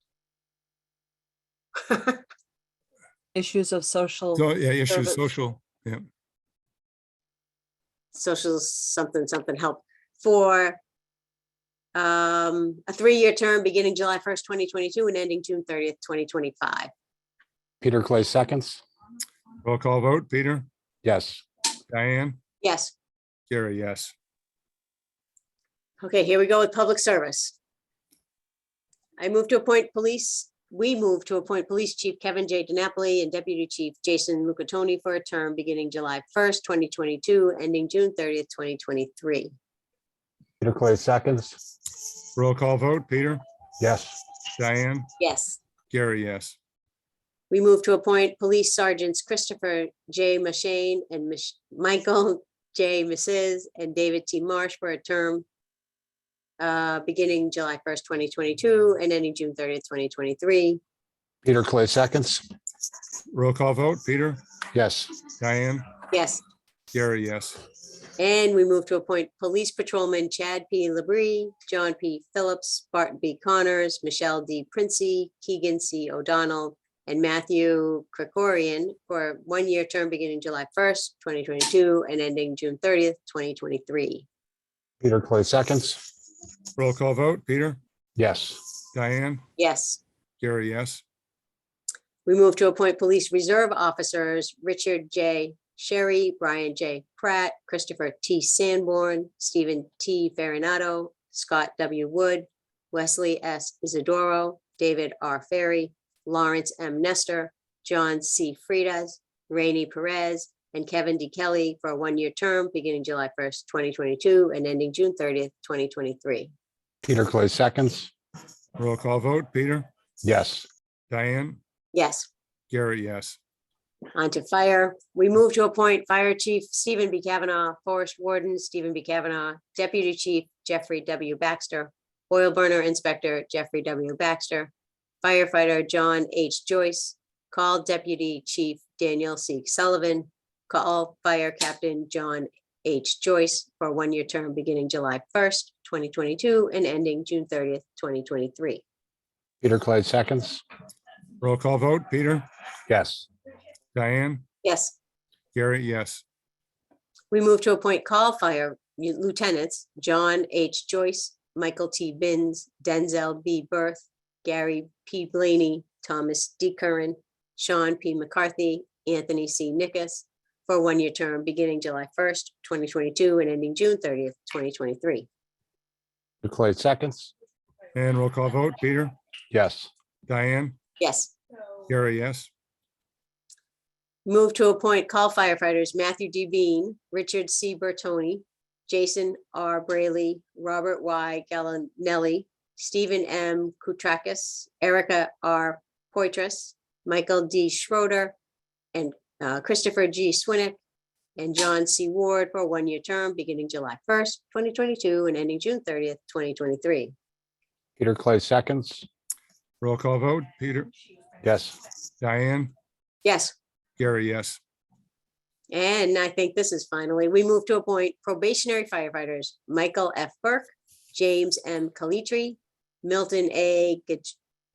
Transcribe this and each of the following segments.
Issues of social, So, yeah, issues, Service. social, yeah. social something, something help for um, a three-year term beginning July first, twenty twenty-two and ending June thirtieth, twenty twenty-five. Peter Clay seconds. Roll call vote, Peter, Yes. Diane, Yes, Gary, yes. okay, here we go with public service. I move to appoint police, we move to appoint Police Chief Kevin J. DiNapoli and Deputy Chief Jason Lucatoni for a term beginning July first, twenty twenty-two, ending June thirtieth, twenty twenty-three. Peter Clay seconds. Roll call vote, Peter, Yes. Diane, Yes. Gary, yes. We move to appoint Police Sergeants Christopher J. Mashane and Mich- Michael J. Mrs. and David T. Marsh for a term uh, beginning July 1st, 2022 and ending June 30th, 2023. Peter Clay seconds. Roll call vote, Peter, Yes. Diane, Yes, Gary, yes. and we move to appoint Police Patrolman Chad P. Labrie, John P. Phillips, Barton B. Connors, Michelle D. Princey, Keegan C. O'Donnell, and Matthew Krikorian for a one-year term beginning July 1st, 2022 and ending June 30th, 2023. Peter Clay seconds. Roll call vote, Peter, Yes. Diane, Yes, Gary, yes. we move to appoint police reserve officers, Richard J. Sherry, Brian J. Pratt, Christopher T. Sanborn, Stephen T. Farinato, Scott W. Wood, Wesley S. Isidoro, David R. Ferry, Lawrence M. Nestor, John C. Fridas, Rainey Perez, and Kevin D. Kelly for a one-year term beginning July first, twenty twenty-two and ending June thirtieth, twenty twenty-three. Peter Clay seconds. Roll call vote, Peter, Yes. Diane, Yes, Gary, yes. Onto fire. We move to appoint Fire Chief Stephen B. Kavanaugh, Forest Warden Stephen B. Kavanaugh, Deputy Chief Jeffrey W. Baxter, Oil Burner Inspector Jeffrey W. Baxter, firefighter John H. Joyce, Call Deputy Chief Daniel C. Sullivan, Call Fire Captain John H. Joyce for a one-year term beginning July 1st, 2022 and ending June 30th, 2023. Peter Clay seconds. Roll call vote, Peter, Yes. Diane, Yes. Gary, yes. We move to appoint call fire lieutenants, John H. Joyce, Michael T. Binns, Denzel B. Berth, Gary P. Blaney, Thomas D. Curran, Sean P. McCarthy, Anthony C. Nickus, for a one-year term beginning July 1st, 2022 and ending June 30th, 2023. Peter Clay seconds. And roll call vote, Peter, Yes. Diane, Yes. Gary, yes. Move to appoint call firefighters Matthew D. Bean, Richard C. Bertoni, Jason R. Brayley, Robert Y. Gallinelli, Stephen M. Koutrakis, Erica R. Poitras, Michael D. Schroeder, and uh, Christopher G. Swinnick, and John C. Ward for a one-year term beginning July 1st, 2022 and ending June 30th, 2023. Peter Clay seconds. Roll call vote, Peter, Yes. Diane, Yes. Gary, yes. And I think this is finally, we move to appoint probationary firefighters, Michael F. Burke, James M. Calitri, Milton A.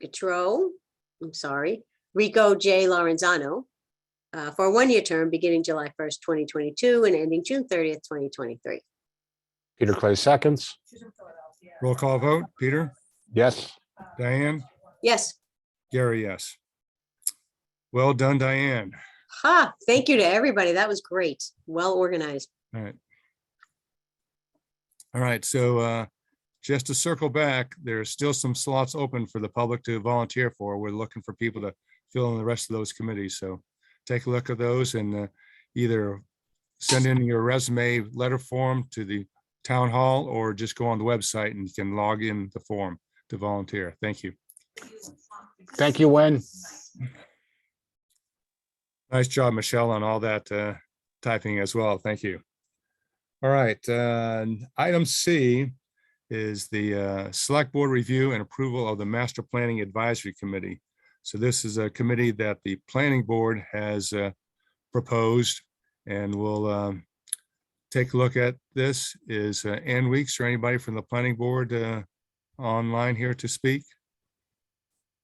Gatro, I'm sorry, Rico J. Lorenzano, uh, for a one-year term beginning July 1st, 2022 and ending June 30th, 2023. Peter Clay seconds. Roll call vote, Peter, Yes. Diane, Yes, Gary, yes. Well done, Diane. ha, thank you to everybody. That was great. Well organized. All right. All right, so uh, just to circle back, there's still some slots open for the public to volunteer for. We're looking for people to fill in the rest of those committees, so take a look at those and uh, either send in your resume letter form to the town hall or just go on the website and you can log in the form to volunteer. Thank you. Thank you, Wayne. Nice job, Michelle, on all that uh, typing as well. Thank you. All right, uh, item C is the uh, Select Board Review and Approval of the Master Planning Advisory Committee. So this is a committee that the Planning Board has uh, proposed and we'll um, take a look at this. Is uh, Ann Weeks or anybody from the Planning Board uh, online here to speak?